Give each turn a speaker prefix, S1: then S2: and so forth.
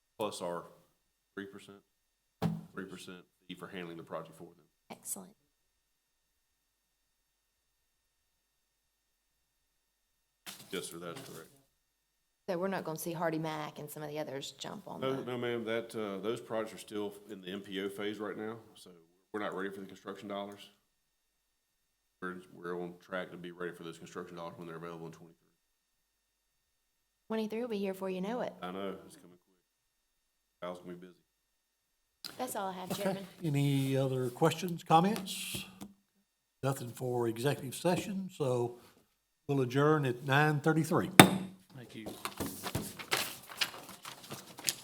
S1: plus our three percent, three percent fee for handling the project for them.
S2: Excellent.
S1: Yes, sir, that's correct.
S2: So we're not going to see Hardy Mack and some of the others jump on
S1: No,
S2: that.
S1: no, ma'am, that, uh, those projects are still in the MPO phase right now, so we're not ready for the construction dollars. We're, we're on track to be ready for those construction dollars when they're available in twenty-three.
S2: 23 will be here before you know it.
S1: I know, it's coming quick. Kyle's gonna be busy.
S2: That's all I have,
S3: Okay,
S2: Chairman.
S3: any other questions, comments? Nothing for executive session, so we'll adjourn at nine thirty-three.
S4: Thank you.